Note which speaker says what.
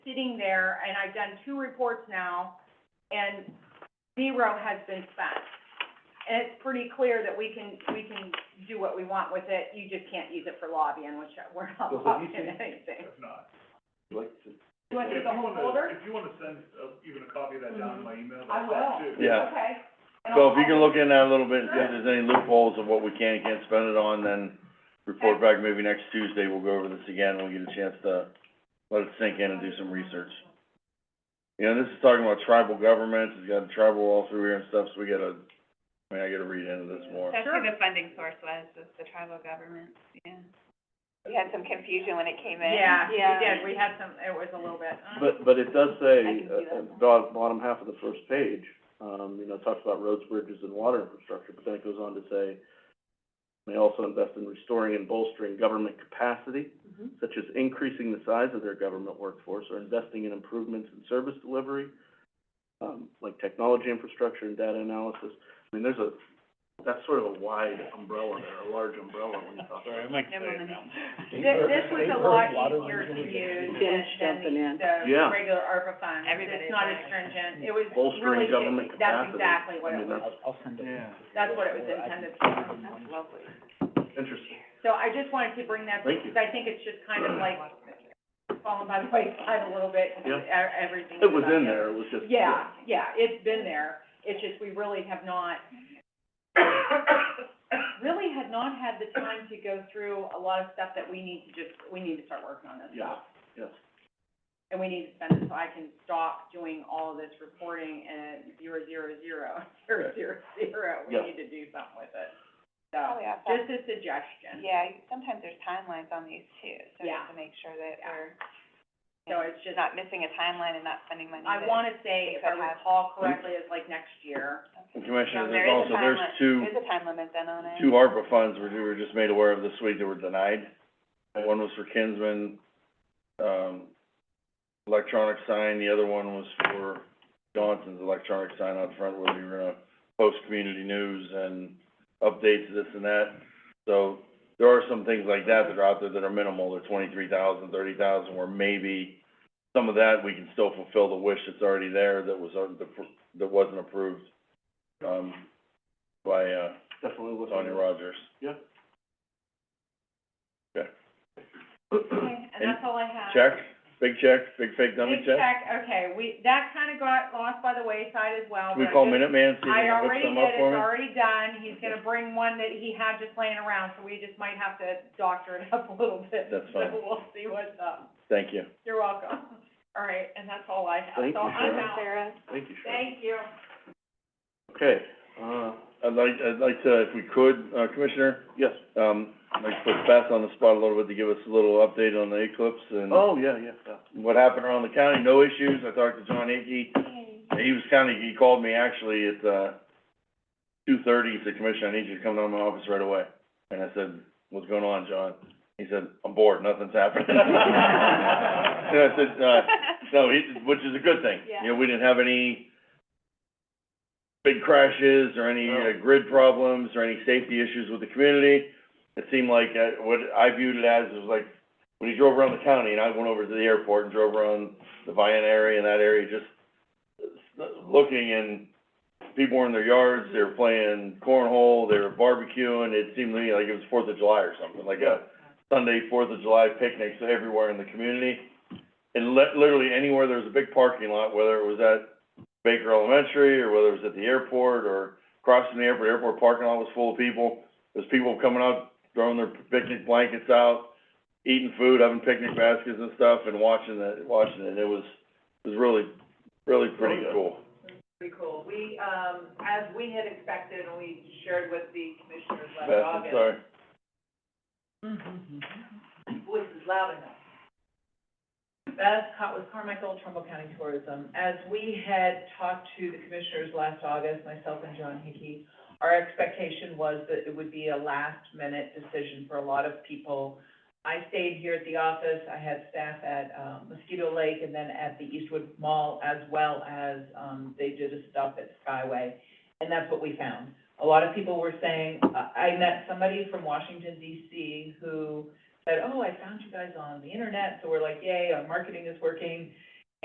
Speaker 1: sitting there, and I've done two reports now, and zero has been spent. And it's pretty clear that we can, we can do what we want with it, you just can't use it for lobbying, which we're not
Speaker 2: So what do you
Speaker 1: lobbying
Speaker 2: think?
Speaker 1: anything.
Speaker 3: if not.
Speaker 2: You like to-
Speaker 1: You want to do
Speaker 3: If
Speaker 1: the
Speaker 3: you
Speaker 1: whole
Speaker 3: wanna-
Speaker 1: folder? Mm-hmm.
Speaker 3: If you wanna send, uh, even a copy of that down to my email,
Speaker 1: I
Speaker 3: that's fine
Speaker 1: will.
Speaker 3: too.
Speaker 4: Yeah.
Speaker 1: Okay. And
Speaker 4: So
Speaker 1: I'll-
Speaker 4: if you can look in that a little bit and see if
Speaker 1: Sure.
Speaker 4: there's any loopholes of what we can and can't spend it on, then report back maybe next Tuesday, we'll go over this again, we'll get a chance to let it sink in and do some research. You know, this is talking about tribal governments, it's got tribal all through here and stuff, so we gotta, I mean, I gotta read into this more.
Speaker 5: That's
Speaker 1: Sure.
Speaker 5: who the funding source was, was the tribal government, yeah. We had some confusion when it came in.
Speaker 1: Yeah, we did, we had some, it was a little bit, mm.
Speaker 2: But, but it does say,
Speaker 5: can see
Speaker 2: uh,
Speaker 5: that.
Speaker 2: bottom, bottom half of the first page, um, you know, it talks about roads, bridges, and water infrastructure, but then it goes on to say, may also invest in restoring and bolstering government capacity,
Speaker 5: Mm-hmm.
Speaker 2: such as increasing the size of their government workforce or investing in improvements in service delivery, um, like technology infrastructure and data analysis. I mean, there's a, that's sort of a wide umbrella there, a large umbrella when you talk about.
Speaker 3: Sorry, I might
Speaker 5: Never mind.
Speaker 1: Thi- This was a lot easier to use than, than
Speaker 6: jumping in.
Speaker 1: the, the
Speaker 2: Yeah.
Speaker 1: regular ARPA funds.
Speaker 5: Everybody
Speaker 1: It's not
Speaker 5: is
Speaker 1: as stringent, it was really,
Speaker 2: Bolstering government
Speaker 1: ju- that's exactly
Speaker 2: capacity.
Speaker 1: what
Speaker 2: I
Speaker 1: it
Speaker 2: mean,
Speaker 1: was,
Speaker 2: that's
Speaker 3: Yeah.
Speaker 1: that's what it was intended for.
Speaker 5: That's lovely.
Speaker 2: interesting.
Speaker 1: So I just wanted to bring that,
Speaker 2: Thank you.
Speaker 1: because I think it's just kind of like falling by the wayside a little bit,
Speaker 2: Yeah.
Speaker 1: e- everything.
Speaker 2: It was
Speaker 1: about
Speaker 2: in there, it was just.
Speaker 1: Yeah, yeah, it's been there, it's just we really have not, really had not had the time to go through a lot of stuff that we need to just, we need to start working on this
Speaker 2: Yeah,
Speaker 1: stuff.
Speaker 2: yes.
Speaker 1: and we need to spend it, so I can stop doing all of this reporting and zero, zero, zero, zero, zero, zero. We
Speaker 2: Yeah.
Speaker 1: need to do something with it. So,
Speaker 5: Probably outside,
Speaker 1: just a suggestion.
Speaker 5: Oh, yeah, sometimes there's timelines on these too, so we
Speaker 1: Yeah.
Speaker 5: have to make sure that
Speaker 1: Yeah.
Speaker 5: we're,
Speaker 1: So
Speaker 5: you know,
Speaker 1: it's just,
Speaker 5: not missing a timeline and not spending money
Speaker 1: I
Speaker 5: that-
Speaker 1: wanna say,
Speaker 5: we
Speaker 1: if I Hmm?
Speaker 5: could have-
Speaker 1: recall correctly, it's like next year.
Speaker 4: And
Speaker 5: Okay.
Speaker 4: Commissioner,
Speaker 5: So there
Speaker 4: there's
Speaker 5: is a
Speaker 4: also, there's
Speaker 5: timeline.
Speaker 4: two,
Speaker 5: There's a time limit then on it.
Speaker 4: two ARPA funds we were just made aware of this week that were denied. One was for Kinsman, um, electronic sign, the other one was for Johnson's electronic sign out front where we were gonna post community news and updates, this and that. So there are some things like that that are out there that are minimal, they're twenty-three thousand, thirty thousand, where maybe some of that, we can still fulfill the wish that's already there that was, un- that wasn't approved, um, by, uh,
Speaker 2: Definitely was on
Speaker 4: Tony Rogers.
Speaker 2: Yeah.
Speaker 4: Okay,
Speaker 1: Okay, and that's all I have.
Speaker 4: check, big check, big fake dummy
Speaker 1: Big
Speaker 4: check.
Speaker 1: check, okay, we, that kinda got lost by the wayside as well,
Speaker 4: Can we
Speaker 1: but I
Speaker 4: call
Speaker 1: just-
Speaker 4: Minuteman, see if they
Speaker 1: I
Speaker 4: can whip
Speaker 1: already
Speaker 4: some up
Speaker 1: did,
Speaker 4: for
Speaker 1: it's
Speaker 4: me?
Speaker 1: already done, he's gonna bring one that he had just laying around, so we just might have to doctor it up a little bit.
Speaker 4: That's fine.
Speaker 1: So we'll see what's up,
Speaker 4: Thank you.
Speaker 1: you're welcome, all right, and that's all I have,
Speaker 2: Thank
Speaker 1: so
Speaker 2: you,
Speaker 1: I'm
Speaker 2: Sharon.
Speaker 1: out.
Speaker 5: Sarah,
Speaker 2: Thank you, Sharon.
Speaker 1: Thank you.
Speaker 2: Okay, uh,
Speaker 4: I'd like, I'd like to, if we could, uh, Commissioner,
Speaker 2: yes.
Speaker 4: um, I'd like to put Beth on the spot a little bit to give us a little update on the eclipse and
Speaker 2: Oh, yeah, yeah, yeah.
Speaker 4: what happened around the county, no issues. I talked to John Hickey. He was kinda, he called me actually at, uh, two thirty, he said, Commissioner, I need you to come down to my office right away. And I said, what's going on, John? He said, I'm bored, nothing's happening. And I said, uh, No, he, which is a good thing.
Speaker 5: Yeah.
Speaker 4: You know, we didn't have any big crashes or any uh, grid problems or any safety issues with the community. It seemed like, uh, what I viewed it as, was like, when you drove around the county, and I went over to the airport and drove around the Vian area and that area, just uh, looking and people were in their yards, they were playing cornhole, they were barbecuing, it seemed to me like it was Fourth of July or something, like a Sunday, Fourth of July picnics everywhere in the community. And li- literally anywhere there was a big parking lot, whether it was at Baker Elementary, or whether it was at the airport, or crossing the airport, airport parking lot was full of people. There's people coming up, throwing their picnic blankets out, eating food, having picnic baskets and stuff, and watching the, watching it, it was, it was really, really pretty
Speaker 2: Really?
Speaker 4: cool.
Speaker 7: Pretty cool. We, um, as we had expected, and we shared with the commissioners
Speaker 4: Beth,
Speaker 7: last
Speaker 4: I'm
Speaker 7: August,
Speaker 4: sorry.
Speaker 7: Mm-hmm. voice is loud enough. Beth Cott with Carmichael, Trumbull County Tourism. As we had talked to the commissioners last August, myself and John Hickey, our expectation was that it would be a last-minute decision for a lot of people. I stayed here at the office, I had staff at, um, Mosquito Lake and then at the Eastwood Mall, as well as, um, they did a stop at Skyway. And that's what we found. A lot of people were saying, I, I met somebody from Washington DC who said, oh, I found you guys on the internet, so we're like, yay, our marketing is working.